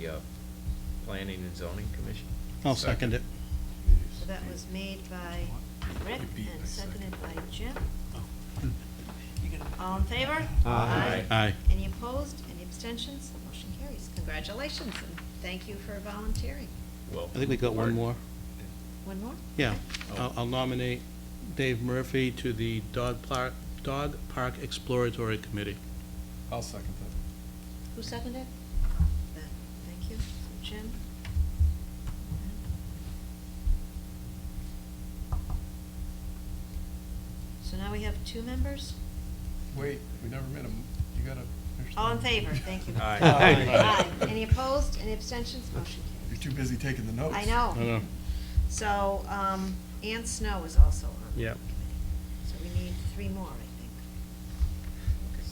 the uh, Planning and Zoning Commission. I'll second it. So that was made by Rick and seconded by Jim. All in favor? Aye. Aye. Any opposed? Any abstentions? Motion carries. Congratulations, and thank you for volunteering. I think we got one more. One more? Yeah. I'll I'll nominate Dave Murphy to the Dog Park, Dog Park Exploratory Committee. I'll second that. Who seconded? Ben, Thank you. So Jim? So now we have two members? Wait, we never met him. You gotta. finish All in that. favor? Thank you. Aye. Aye. Aye. Any opposed? Any abstentions? Motion You're carries. too busy taking the notes. I know. I know. So, um, Ann Snow is also on the Yeah. committee. So we need three more, I think.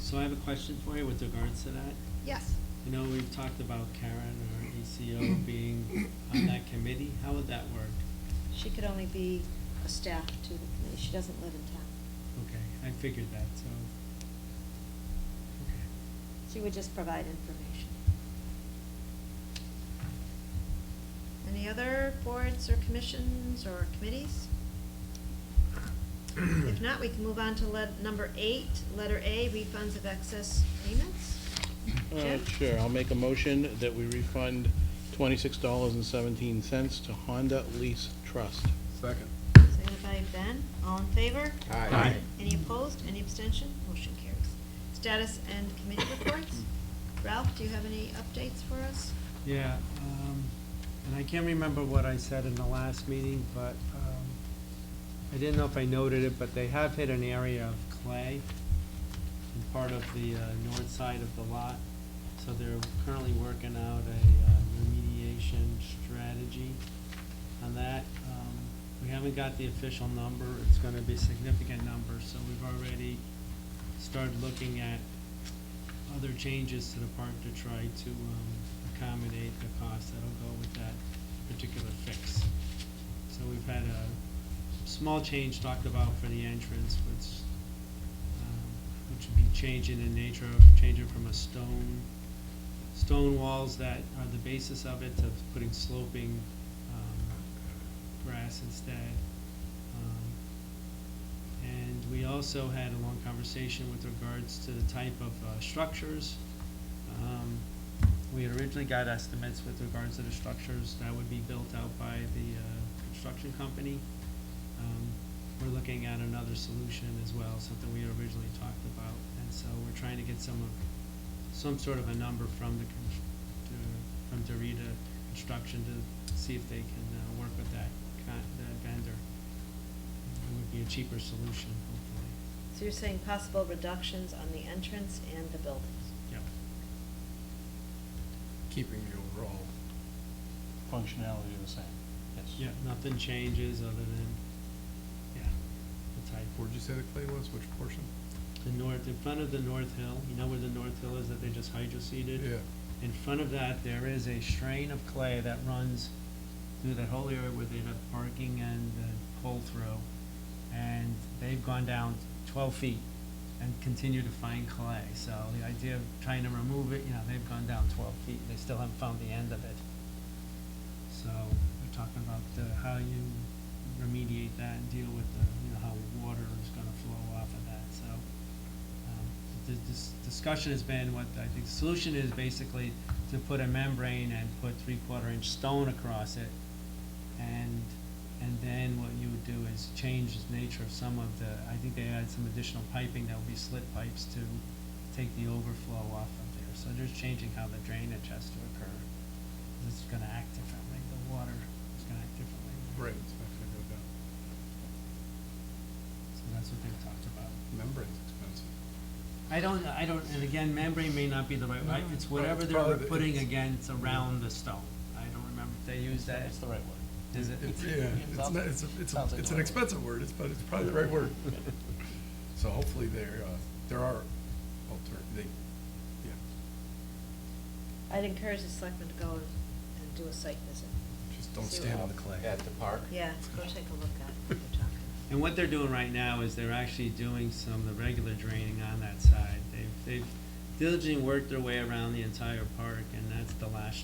So I have a question for you with regards to that. Yes. You know, we've talked about Karen or ECO being on that committee. How would that work? She could only be a staff to the committee, she doesn't live in town. Okay, I figured that, so. Okay. She would just provide information. Any other boards or commissions or committees? If not, we can move on to let, number eight, letter A, refunds of excess payments. Uh, Jim? Sure, I'll make a motion that we refund twenty-six dollars and seventeen cents to Honda Lease Trust. Second. Seconded by Ben, all in favor? Aye. Any opposed, any abstention? Motion carries. Status and committee reports. Ralph, do you have any updates for us? Yeah, um, and I can't remember what I said in the last meeting, but, um, I didn't know if I noted it, but they have hit an area of clay in part of the, uh, north side of the lot. So they're currently working out a, uh, remediation strategy on that. Um, we haven't got the official number, it's gonna be a significant number, so we've already started looking at other changes to the park to try to, um, accommodate the cost that'll go with that particular fix. So we've had a small change talked about for the entrance, which, um, which would be changing in nature of, changing from a stone, stone walls that are the basis of it to putting sloping, um, grass instead. Um, And we also had a long conversation with regards to the type of, uh, structures. Um, we had originally got estimates with regards to the structures that would be built out by the, uh, construction company. Um, We're looking at another solution as well, something we had originally talked about, and so we're trying to get some of, some sort of a number from the, con- to- from Dorita Construction to see if they can uh, work with that, con- that vendor. It would be a cheaper solution, hopefully, So you're saying possible reductions on the entrance and the buildings? yep. Keeping the overall. Functionality the same. Yeah, nothing changes other than, yeah, the type. Where'd you say the clay was? Which portion? The north, in front of the north hill, you know where the north hill is that they just hydro seeded? Yeah. In front of that, there is a strain of clay that runs through that whole area where they have parking and uh, pull-through. And they've gone down twelve feet and continue to find clay. So the idea of trying to remove it, you know, they've gone down twelve feet, they still haven't found the end of it. So they're talking about uh, how you remediate that and deal with the, you know, how water is gonna flow off of that, so. um, The, this discussion has been what I think the solution is basically to put a membrane and put three-quarter inch stone across it. And, and then what you would do is change the nature of some of the, I think they add some additional piping that would be slit pipes to take the overflow off of there. So just changing how the drainage has to occur. It's gonna act differently, the water is gonna act differently. Right, it's not gonna go down. So that's what they've talked about. Membrane's expensive. I don't, I don't, and again, membrane may not be the right, word. No, it's well, whatever it's they're probably the- putting it's- against around the stone. I don't remember if they use that. It's the right word. Is it? It's, yeah, it's not, it's, a- it's, a- it's an expensive word, it's, but it's probably the right word. So hopefully there, uh, there are alter, they, yeah, I'd encourage the selectmen to go and and do a site visit. just don't See stand what- on the clay. At the park? Yeah, go take a look at what you're talking about. And what they're doing right now is they're actually doing some, of the regular draining on that side. They've, they've diligently worked their way around the entire park, and that's the last